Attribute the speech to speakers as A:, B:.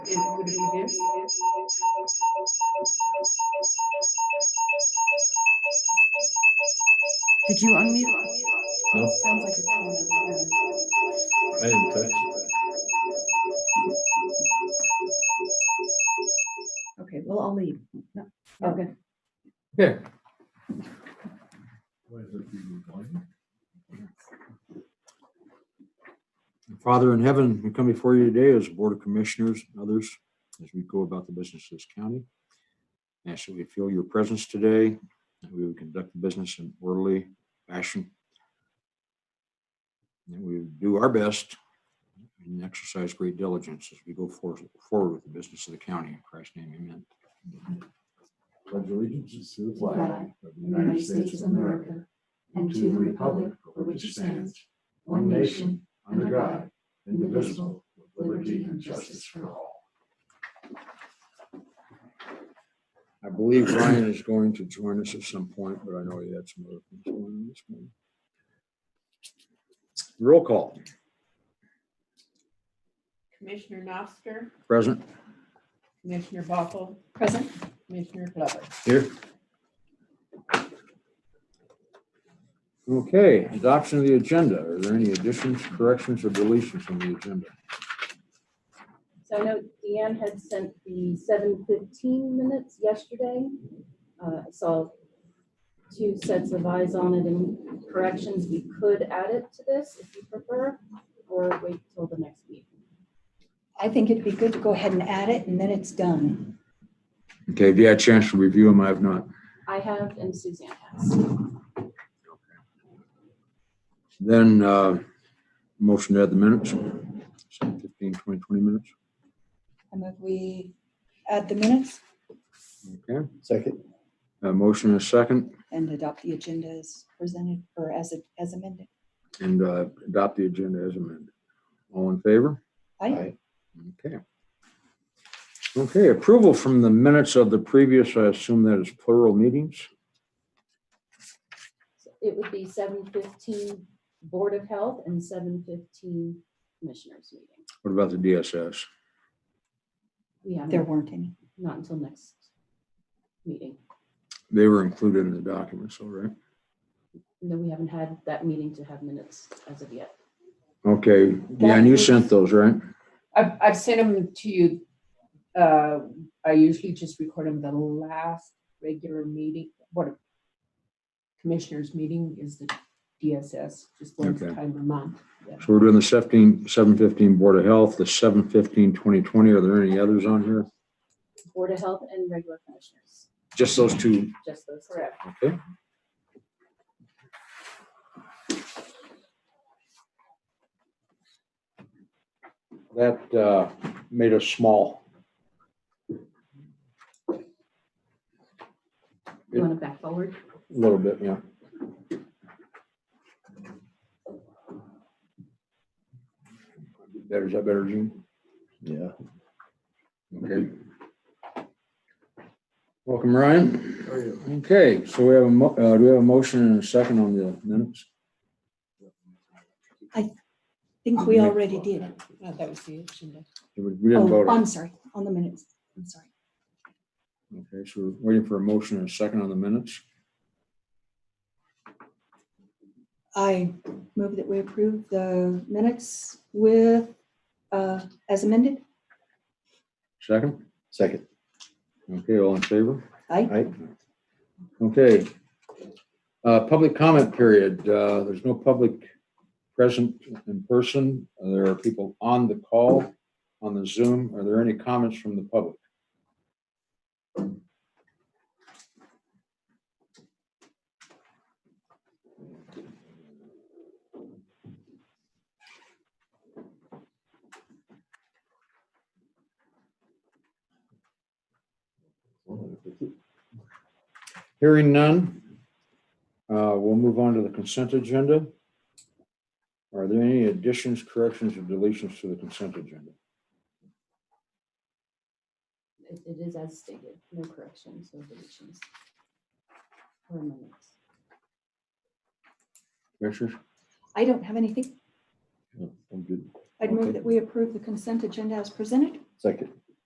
A: Did you unmute?
B: No.
A: Sounds like it's on the-
B: I didn't touch.
A: Okay, well, I'll leave. No, Okay.
B: Yeah.
C: Father in heaven, we come before you today as a Board of Commissioners and others as we go about the business of this county. Ask that we feel your presence today, that we would conduct the business in orderly fashion. That we would do our best and exercise great diligence as we go for- forward with the business of the county. In Christ's name, amen.
D: Pledge allegiance to the
E: flag
D: of
E: the United States of America and to the republic for which it stands, one nation, under God, indivisible, with liberty and justice for all.
C: I believe Ryan is going to join us at some point, but I know he had some other things going on this morning. Roll call,
F: Commissioner Noster,
C: present
F: Commissioner Buckle,
E: Present.
F: Commissioner Glover.
C: here. Okay, adoption of the agenda. Are there any additions, corrections, or deletions on the agenda?
E: So I know Deanne had sent the seven fifteen minutes yesterday. Uh, I saw two sets of eyes on it and corrections. We could add it to this if you prefer, or wait till the next meeting.
G: I think it'd be good to go ahead and add it and then it's done.
C: Okay, have you had a chance to review them? I have not.
E: I have and Suzanne has.
C: Then, uh, motion to add the minutes, 15, 20, 20 minutes.
G: And if we add the minutes
C: Okay,
D: Second.
C: a motion and a second.
G: and adopt the agenda as presented or as, it- as amended.
C: and uh, adopt the agenda as amended. All in favor?
G: Aye.
C: Okay. Okay, approval from the minutes of the previous, I assume that is plural meetings?
E: It would be seven fifteen Board of Health and seven fifteen Commissioners meeting.
C: What about the DSS?
E: We
G: There
E: have
G: weren't any.
E: not until next meeting.
C: They were included in the documents, all right?
E: No, we haven't had that meeting to have minutes as of yet.
C: Okay, yeah, and you sent those, right?
F: I've, I've sent them to you. Uh, I usually just record them the last regular meeting, what a commissioners meeting is the DSS, just one
C: Okay.
F: time a month.
C: So we're doing the 17, 715 Board of Health, the 715 2020. Are there any others on here?
E: Board of Health and regular commissioners,
C: Just those two,
E: just those. two.
F: Correct.
C: okay? That uh, made us small.
E: You want to back forward?
C: A little bit, yeah. Better, is that better, Gene?
D: Yeah.
C: Okay. Welcome, Ryan. Okay, so we have, a mo- uh, do we have a motion and a second on the minutes?
G: I think we already did.
F: No, Oh, that was the agenda.
C: We we didn't vote.
G: Oh,
C: on
G: I'm
C: it.
G: sorry, on the minutes. I'm sorry.
C: Okay, so we're waiting for a motion and a second on the minutes.
G: I move that we approve the minutes with, uh, as amended.
C: Second?
D: Second.
C: Okay, all in favor?
G: Aye.
C: Okay. Uh, Public comment period. Uh, There's no public present in person. There are people on the call, on the Zoom. Are there any comments from the public? Hearing none. uh, We'll move on to the consent agenda. Are there any additions, corrections, or deletions to the consent agenda?
E: It it is as stated, no corrections, no deletions. Or amendments.
C: Commissioners?
G: I don't have anything.
D: I'm good.
G: I'd
C: Okay.
G: move that we approve the consent agenda as presented.
D: Second.